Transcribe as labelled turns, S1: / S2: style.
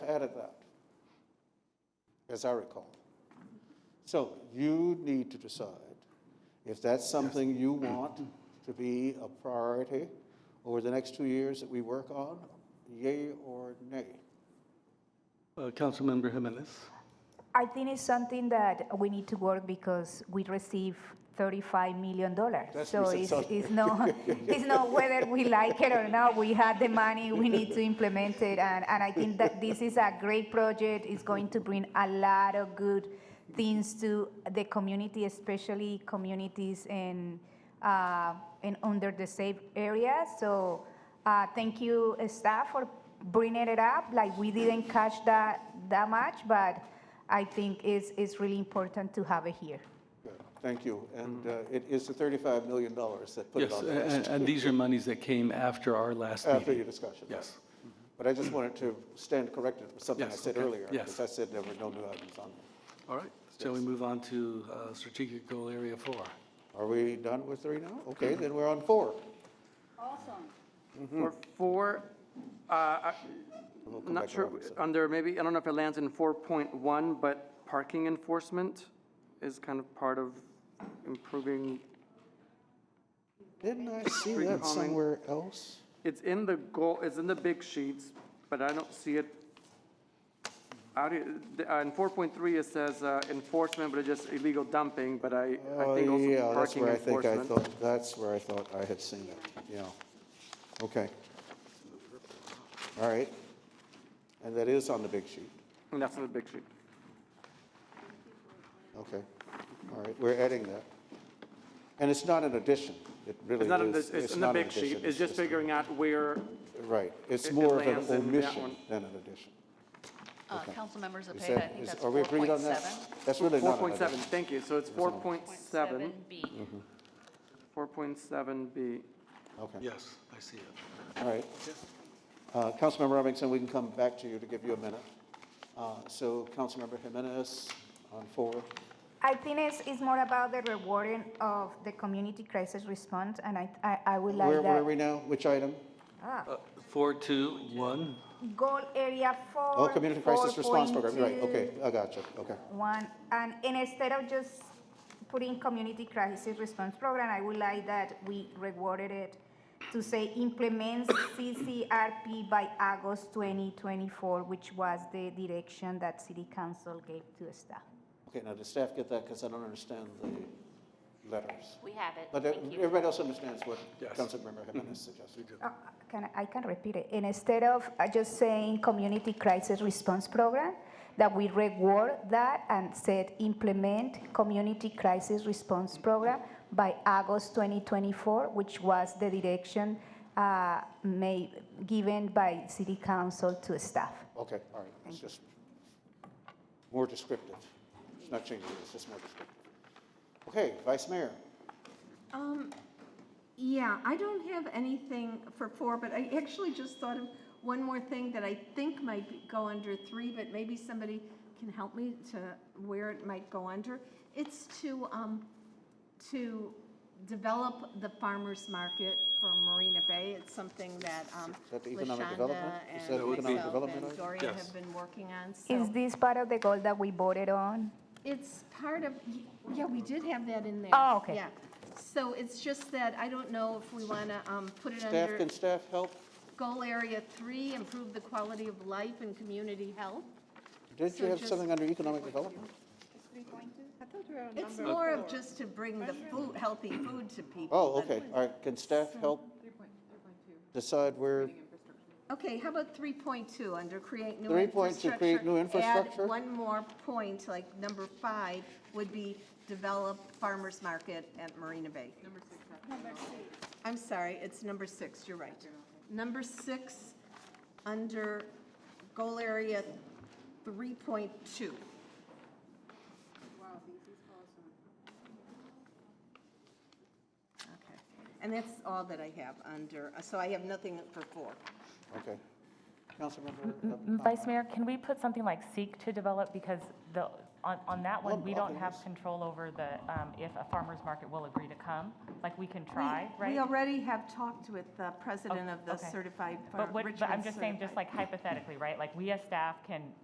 S1: as I recall. So you need to decide if that's something you want to be a priority over the next two years that we work on, yay or nay.
S2: Uh, Councilmember Jimenez.
S3: I think it's something that we need to work because we receive $35 million. So
S1: what you
S3: it's,
S1: said,
S3: it's not, it's not whether we like it or not, we have the money, we need to implement it. And, and I think that this is a great project, it's going to bring a lot of good things to the community, especially communities in, uh, in under the safe area. So uh, thank you, uh, staff, for bringing it up. Like, we didn't catch that, that much, but I think it's, it's really important to have it here.
S1: Good. Thank you. And uh, it is the $35 million that put it on
S2: Mm-hmm. Yes, a-
S1: the list
S2: a- and these are monies that came after our last
S1: after
S2: meeting.
S1: your discussion.
S2: Yes.
S1: But I just wanted to stand corrected with something I
S2: Yes,
S1: said
S2: okay.
S1: earlier.
S2: Yes.
S1: Because I said there were no new items on there.
S2: All right, shall we move on to uh, strategic goal area four?
S1: Are we done with three now? Okay, then we're on four.
S4: Awesome.
S5: Or four, uh, I-
S1: We'll Hmm. come
S5: I'm not
S1: back
S5: sure,
S1: around to that.
S5: under maybe, I don't know if it lands in 4.1, but parking enforcement is kind of part of improving,
S1: Didn't I see
S5: Street
S1: that
S5: calming.
S1: somewhere else?
S5: it's in the goal, it's in the big sheets, but I don't see it. How do you- the- uh, In 4.3, it says uh, enforcement, but it's just illegal dumping, but I, I
S1: Oh,
S5: think
S1: yeah, that's
S5: also parking
S1: where I think I
S5: enforcement.
S1: thought, that's where I thought I had seen it, yeah. Okay. All right. And that is on the big sheet.
S5: And that's in the big sheet.
S1: Okay. All right, we're adding that. And it's not an addition. It really
S5: It's not in
S1: is.
S5: this, it's in the
S1: not an
S5: big sheet,
S1: addition,
S5: it's just figuring out where,
S1: Right. It's
S5: it- it
S1: more of an
S5: lands in that
S1: omission
S5: one.
S1: than an addition.
S4: Uh, Councilmembers
S1: Is
S4: Cepeda, I
S1: that-
S4: think
S1: is-
S4: that's
S1: Are we agreed on that?
S4: 4.7.
S1: That's really not an
S5: 4.7,
S1: addition.
S5: thank you, so it's 4.7.
S4: 7B.
S5: 4.7B.
S1: Okay,
S2: Yes, I see it.
S1: all right. Uh, Councilmember Robinson, we can come back to you to give you a minute. Uh, So Councilmember Jimenez on four.
S3: I think it's, it's more about the rewarding of the community crisis response, and I, I, I would like
S1: Where
S3: that.
S1: were we now? Which item?
S2: Uh, Four, two, one,
S3: Goal area four.
S1: Oh, Community Crisis Response Program, right,
S3: 4.2.
S1: okay, I got you, okay.
S3: One, and and instead of just putting community crisis response program, I would like that we rewarded it to say implements CCRP by August 2024, which was the direction that city council gave to staff.
S1: Okay, now, did staff get that? Because I don't understand the letters.
S6: We have it.
S1: But uh,
S6: Thank you.
S1: everybody else understands what
S2: Yes.
S1: Councilmember Jimenez suggested.
S3: Uh, Can, I- I can repeat it. And Instead of uh, just saying community crisis response program, that we reward that and said implement community crisis response program by August 2024, which was the direction uh, made, given by city council to staff.
S1: Okay, all right, it's just more descriptive. It's not changing, it's just more descriptive. Okay, Vice Mayor,
S7: Um, yeah, I don't have anything for four, but I actually just thought of one more thing that I think might be- go under three, but maybe somebody can help me to where it might go under. It's to, um, to develop the farmer's market for Marina Bay. It's something that, um,
S1: Is that the economic
S7: LaShonda
S1: development? Is that the
S7: and
S1: economic
S7: myself
S1: development
S7: and
S1: item?
S7: Gloria
S2: Yes.
S7: have been working on, so.
S3: Is this part of the goal that we voted on?
S7: It's part of, yeah, we did have that in there.
S3: Oh, okay.
S7: Yeah. So it's just that I don't know if we want to um, put it
S1: staff,
S7: under
S1: can staff help?
S7: goal area three, improve the quality of life and community health.
S1: Did you
S7: So
S1: have
S7: just-
S1: something under economic development?
S7: It's more of just to bring the food, healthy food to people.
S1: Oh,
S7: than-
S1: okay, all right, can staff help decide where,
S7: Okay, how about three point two, under create new
S1: 3.2,
S7: infrastructure?
S1: create new infrastructure?
S7: Add one more point, like number five would be develop farmer's market at Marina Bay. Number six. I'm sorry, it's number six, you're right. Number six, under goal area three point two. Okay, and that's all that I have under, so I have nothing for four.
S1: okay. Councilmember? uh,
S8: Mm-hmm. Vice Mayor, can we put something like seek to develop, because the, on, on that
S1: Well,
S8: one, we don't have
S1: obvious.
S8: control over the, um, if a farmer's market will agree to come, like, we can try, right? Oh,
S7: We already have talked with the president of the
S8: okay.
S7: certified, far-
S8: But what,
S7: Richmond
S8: but I'm just saying, just
S7: Certified.
S8: like hypothetically, right, like, we as staff can